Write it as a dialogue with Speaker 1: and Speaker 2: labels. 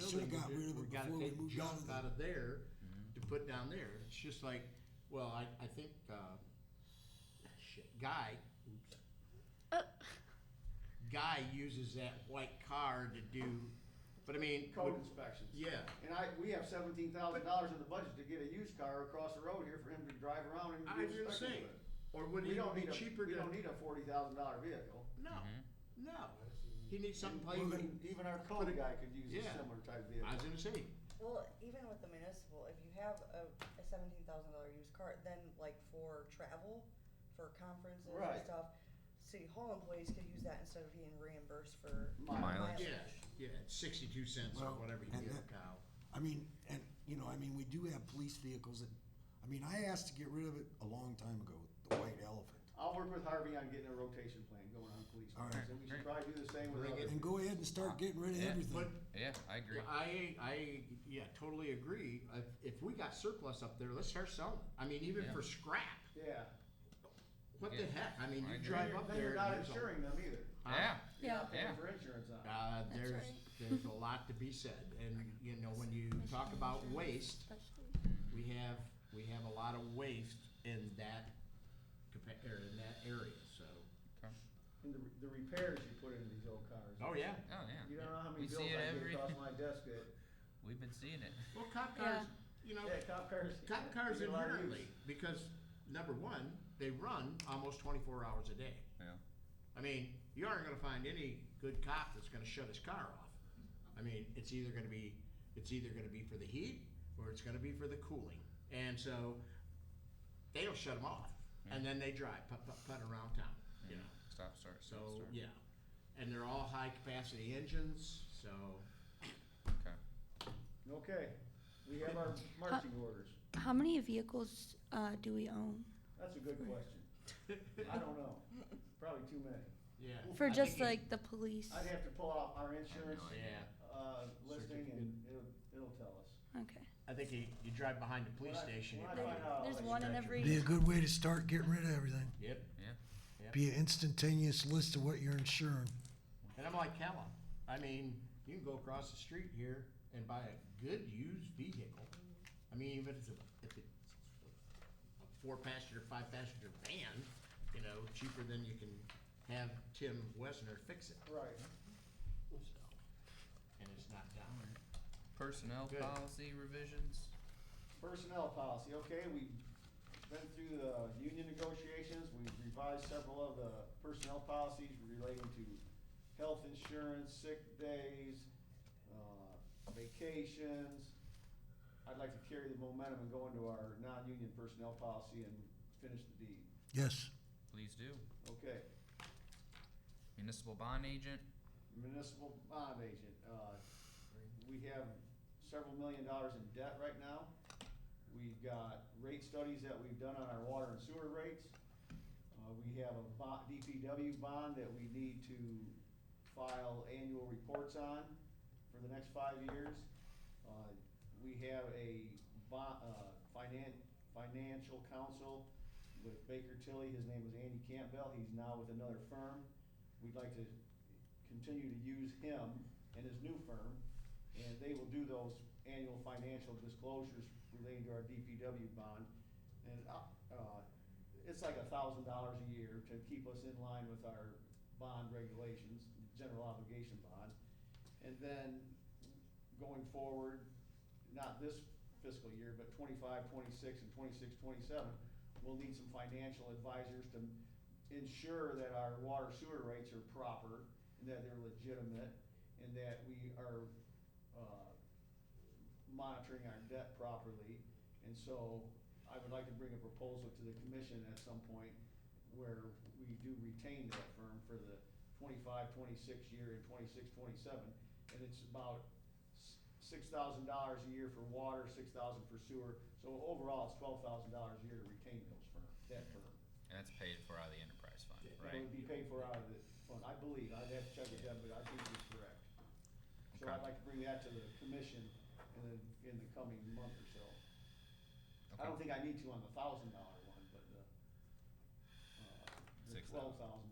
Speaker 1: should've got
Speaker 2: do-
Speaker 1: rid of it
Speaker 2: we gotta
Speaker 1: before we
Speaker 2: take
Speaker 1: moved
Speaker 2: junk
Speaker 1: on to the-
Speaker 2: Out of there to put down there. It's just like, well, I, I think, uh, shit, Guy, oops. Guy uses that white car to do, but I mean.
Speaker 3: Code
Speaker 2: would-
Speaker 3: inspections.
Speaker 2: Yeah.
Speaker 3: And I, we have seventeen thousand dollars in the budget to get a used car across the road here for him to drive around and
Speaker 2: I
Speaker 3: do
Speaker 2: was gonna say,
Speaker 3: inspections with.
Speaker 2: or would it
Speaker 3: We don't
Speaker 2: be
Speaker 3: need a,
Speaker 2: cheaper
Speaker 3: we
Speaker 2: to?
Speaker 3: don't need a forty thousand dollar vehicle.
Speaker 2: No, no. He needs something plain.
Speaker 3: Even, even our code guy could use a
Speaker 2: Yeah.
Speaker 3: similar type
Speaker 2: I
Speaker 3: vehicle.
Speaker 2: was gonna say,
Speaker 4: Well, even with the municipal, if you have a, a seventeen thousand dollar used car, then like for travel, for conferences
Speaker 3: Right.
Speaker 4: and stuff, city hall employees could use that instead of being reimbursed for
Speaker 3: Mileage.
Speaker 4: mileage.
Speaker 2: yeah, yeah, it's sixty-two cents or
Speaker 1: Well,
Speaker 2: whatever you
Speaker 1: and
Speaker 2: get a
Speaker 1: that-
Speaker 2: cow.
Speaker 1: I mean, and, you know, I mean, we do have police vehicles that, I mean, I asked to get rid of it a long time ago, the white elephant.
Speaker 3: I'll work with Harvey on getting a rotation plan going on police
Speaker 1: All right.
Speaker 3: cars, and we should probably do the same with
Speaker 2: Bring it-
Speaker 3: others.
Speaker 1: And go ahead and start getting rid of
Speaker 5: Yeah.
Speaker 2: But
Speaker 1: everything.
Speaker 5: Yeah, I agree.
Speaker 2: Yeah, I, I, yeah, totally agree. If, if we got surplus up there, let's start selling. it. I mean, even
Speaker 5: Yeah.
Speaker 2: for scrap,
Speaker 3: Yeah,
Speaker 2: what the
Speaker 5: Yeah.
Speaker 2: heck? I mean, you
Speaker 5: I agree.
Speaker 2: drive up
Speaker 3: then
Speaker 2: there.
Speaker 3: you're
Speaker 2: and
Speaker 3: not
Speaker 2: there's a-
Speaker 3: insuring them either.
Speaker 2: Huh?
Speaker 5: yeah.
Speaker 3: You're not
Speaker 5: Yeah.
Speaker 3: paying for insurance on it.
Speaker 2: Uh, there's,
Speaker 6: right.
Speaker 2: there's a lot to be said. And, you know, when you talk about waste, we have, we have a lot of waste in that, compa- or in that area, so.
Speaker 5: Okay.
Speaker 3: And the, the repairs you put into these old cars.
Speaker 2: Oh, yeah.
Speaker 5: Oh yeah.
Speaker 3: You don't know how many
Speaker 5: we
Speaker 3: bills I
Speaker 5: see it
Speaker 3: get
Speaker 5: every.
Speaker 3: across my desk at,
Speaker 5: We've been seeing it.
Speaker 2: Well, cop cars, you know,
Speaker 3: yeah, cop cars.
Speaker 2: cop cars
Speaker 3: you get a lot of
Speaker 2: inherently,
Speaker 3: use.
Speaker 2: because number one, they run almost twenty-four hours a day.
Speaker 5: Yeah.
Speaker 2: I mean, you aren't gonna find any good cop that's gonna shut his car off. I mean, it's either gonna be, it's either gonna be for the heat, or it's gonna be for the cooling. And so, they don't shut them off, and then they drive, put, put, put around town, you know,
Speaker 5: Stop, start, stop,
Speaker 2: so,
Speaker 5: start.
Speaker 2: yeah. And they're all high-capacity engines, so,
Speaker 5: Okay.
Speaker 3: Okay, we have our marching orders.
Speaker 6: How many vehicles uh, do we own?
Speaker 3: That's a good question. I don't know. Probably too many.
Speaker 2: yeah.
Speaker 6: For
Speaker 2: I
Speaker 6: just
Speaker 2: think
Speaker 6: like the police?
Speaker 3: I'd have to pull out our insurance,
Speaker 2: it- Yeah,
Speaker 3: uh, listing and it'll, it'll tell us.
Speaker 6: Okay.
Speaker 2: I think you, you drive behind the police
Speaker 3: When I-
Speaker 2: station. you
Speaker 3: when I
Speaker 2: probably-
Speaker 3: find out,
Speaker 6: There's
Speaker 3: like,
Speaker 6: one in
Speaker 2: stretch
Speaker 6: every.
Speaker 1: Be a good way to start getting rid of everything.
Speaker 2: Yep,
Speaker 5: Yeah.
Speaker 1: Be an instantaneous list of what you're insuring.
Speaker 2: and I'm like Callum, I mean, you can go across the street here and buy a good used vehicle. I mean, even if it's a, if it's a four passenger, five passenger van, you know, cheaper than you can have Tim Wesner fix it,
Speaker 3: Right.
Speaker 2: so. And it's not down there.
Speaker 5: Personnel
Speaker 2: Good.
Speaker 5: policy revisions.
Speaker 3: Personnel policy, okay, we've been through the union negotiations, we've revised several of the personnel policies relating to health insurance, sick days, uh, vacations. I'd like to carry the momentum and go into our non-union personnel policy and finish the deed,
Speaker 1: Yes.
Speaker 5: Please do.
Speaker 3: okay?
Speaker 5: Municipal bond agent.
Speaker 3: Municipal bond agent, uh, we have several million dollars in debt right now. We've got rate studies that we've done on our water and sewer rates. Uh, we have a bo- DPW bond that we need to file annual reports on for the next five years. Uh, we have a bond, uh, finan- financial counsel with Baker Tilly, his name was Andy Campbell, he's now with another firm. We'd like to continue to use him and his new firm, and they will do those annual financial disclosures relating to our DPW bond. And, uh, uh, it's like a thousand dollars a year to keep us in line with our bond regulations, general obligation bond. And then going forward, not this fiscal year, but 25, 26, and 26, 27, twenty-seven, we'll need some financial advisors to ensure that our water sewer rates are proper and that they're legitimate and that we are, uh, monitoring our debt properly. And so I would like to bring a proposal to the commission at some point where we do retain that firm for the 25, 26 year and 26, 27, And it's about s- six thousand dollars a year for water, six thousand for sewer. So overall, it's twelve thousand dollars a year to retain those firm, that firm.
Speaker 5: And that's paid for out of the enterprise fund,
Speaker 2: Yeah.
Speaker 3: It
Speaker 5: right?
Speaker 3: would be paid for out of the fund, I believe, I'd have to check it out, but I think it's correct. So
Speaker 5: Okay.
Speaker 3: I'd like to bring that to the commission in the, in the coming month or so. I don't think
Speaker 5: Okay.
Speaker 3: I need to on the thousand dollar one, but the, uh, the
Speaker 5: Six
Speaker 3: twelve thousand
Speaker 5: thousand. Uh,